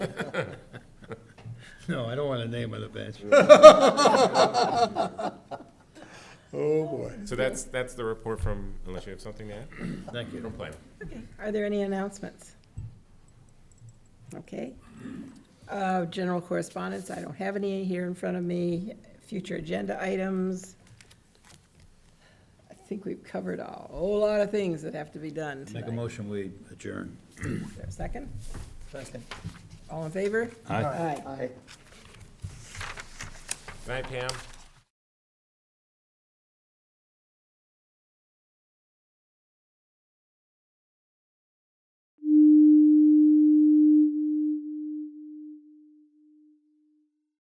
No, I don't want to name on the bench. Oh, boy. So that's, that's the report from, unless you have something to add, Thank you. from planning. Are there any announcements? Okay. Uh, General correspondence, I don't have any here in front of me. Future agenda items. I think we've covered a whole lot of things that have to be done Make a tonight. motion, we adjourn. Is there a Second? Second. All in favor? Aye. Aye. Aye. Good night, Pam.